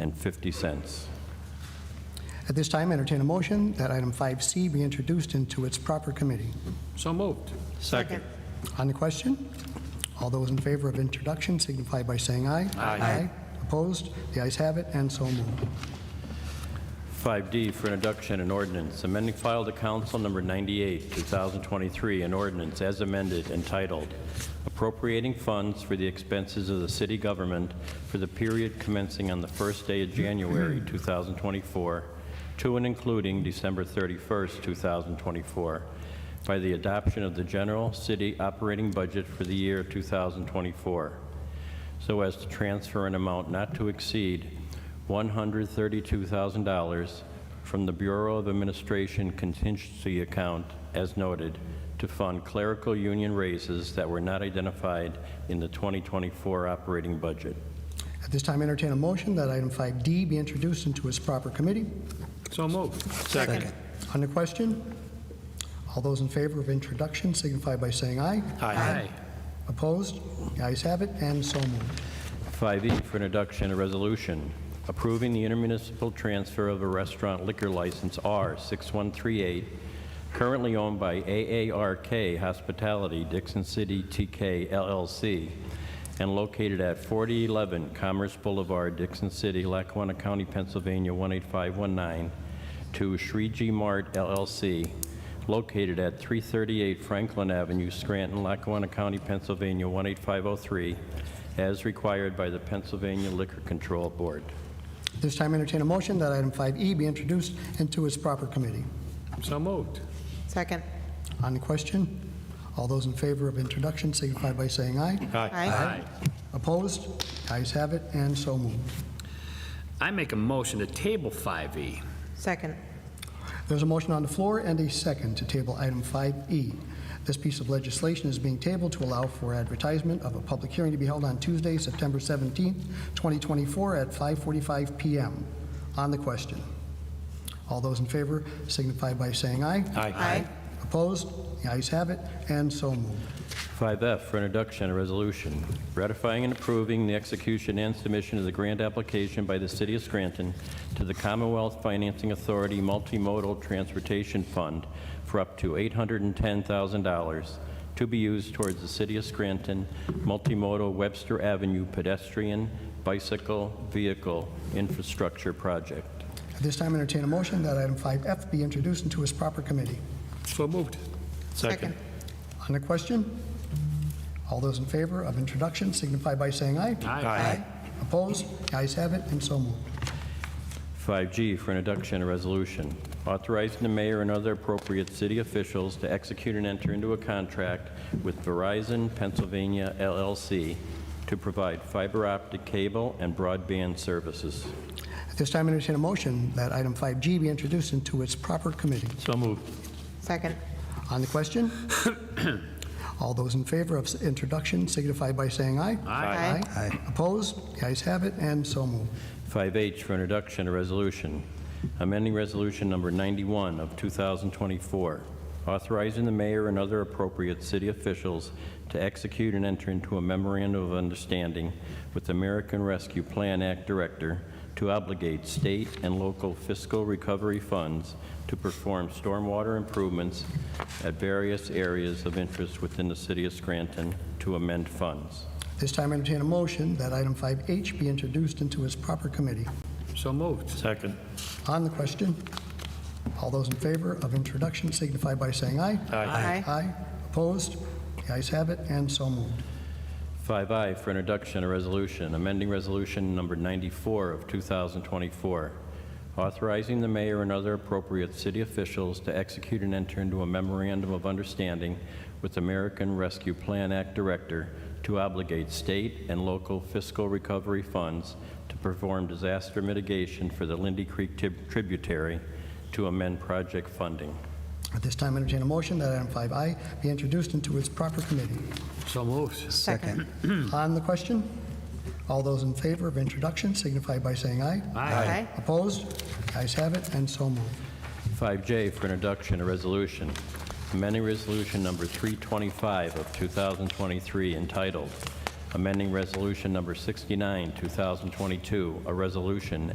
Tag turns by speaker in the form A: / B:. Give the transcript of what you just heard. A: and 50 cents.
B: At this time, entertain a motion that item 5C be introduced into its proper committee.
C: So moved.
D: Second.
B: On the question, all those in favor of introduction signify by saying aye. Aye. Opposed? The ayes have it, and so moved.
A: 5D for introduction and ordinance, amending file to council number 98, 2023, an ordinance as amended entitled appropriating funds for the expenses of the city government for the period commencing on the first day of January 2024 to and including December 31st, 2024, by the adoption of the general city operating budget for the year 2024 so as to transfer an amount not to exceed $132,000 from the Bureau of Administration contingency account, as noted, to fund clerical union raises that were not identified in the 2024 operating budget.
B: At this time, entertain a motion that item 5D be introduced into its proper committee.
C: So moved.
D: Second.
B: On the question, all those in favor of introduction signify by saying aye.
C: Aye.
B: Opposed? The ayes have it, and so moved.
A: 5E E for introduction, a resolution approving the intermunicipal transfer of a restaurant liquor license R6138, currently owned by AARK Hospitality Dixon City TK LLC, and located at 4011 Commerce Boulevard, Dixon City, Lackawanna County, Pennsylvania 18519, to Shriji Mart LLC, located at 338 Franklin Avenue, Scranton, Lackawanna County, Pennsylvania 18503, as required by the Pennsylvania Liquor Control Board.
B: At this time, entertain a motion that item 5E be introduced into its proper committee.
C: So moved.
D: Second.
B: On the question, all those in favor of introduction signify by saying aye.
D: Aye.
B: Opposed? Ayes have it, and so moved.
C: I make a motion to table E. 5E.
D: Second.
B: There's a motion on the floor and a second to table item 5E. This piece of legislation is being tabled to allow for advertisement of a public hearing to be held on Tuesday, September 17th, 2024, at 5:45 PM. On the question, all those in favor signify by saying aye.
D: Aye.
B: Opposed? The ayes have it, and so moved.
A: 5F for introduction, a resolution ratifying and approving the execution and submission of the grant application by the City of Scranton to the Commonwealth Financing Authority Multimodal Transportation Fund for up to $810,000 to be used towards the City of Scranton Multimodal Webster Avenue pedestrian, bicycle, vehicle infrastructure project.
B: At this time, entertain a motion that item 5F be introduced into its proper committee.
C: So moved.
D: Second.
B: On the question, all those in favor of introduction signify by saying aye.
D: Aye.
B: Opposed? The ayes have it, and so moved.
A: 5G for introduction, a resolution authorizing the mayor and other appropriate city officials to execute and enter into a contract with Verizon Pennsylvania LLC to provide fiber optic cable and broadband services.
B: At this time, entertain a motion that item 5G be introduced into its proper committee.
A: So moved.
D: Second.
B: On the question, all those in favor of introduction signify by saying aye.
D: Aye.
B: Aye. Opposed? The ayes have it, and so moved.
A: 5H for introduction, a resolution amending Resolution Number 91 of 2024, authorizing the mayor and other appropriate city officials to execute and enter into a memorandum of understanding with the American Rescue Plan Act Director to obligate state and local fiscal recovery funds to perform stormwater improvements at various areas of interest within the city of Scranton to amend funds.
B: At This time, entertain a motion that item 5H be introduced into its proper committee.
C: So moved.
A: Second.
B: On the question, all those in favor of introduction signify by saying aye.
D: Aye.
B: Aye. Opposed? The ayes have it, and so moved.
A: 5I for introduction, a resolution, amending resolution number 94 of 2024, authorizing the mayor and other appropriate city officials to execute and enter into a memorandum of understanding with American Rescue Plan Act Director to obligate state and local fiscal recovery funds to perform disaster mitigation for the Lindy Creek tib- tributary to amend project funding.
B: At this time, entertain a motion that item 5I be introduced into its proper committee.
C: So moved.
D: Second.
B: On the question, all those in favor of introduction signify by saying aye.
D: Aye.
B: Opposed? The ayes have it, and so moved.
A: 5J for introduction, a resolution, amending resolution number 325 of 2023 entitled, amending Resolution Number 69, 2022, a resolution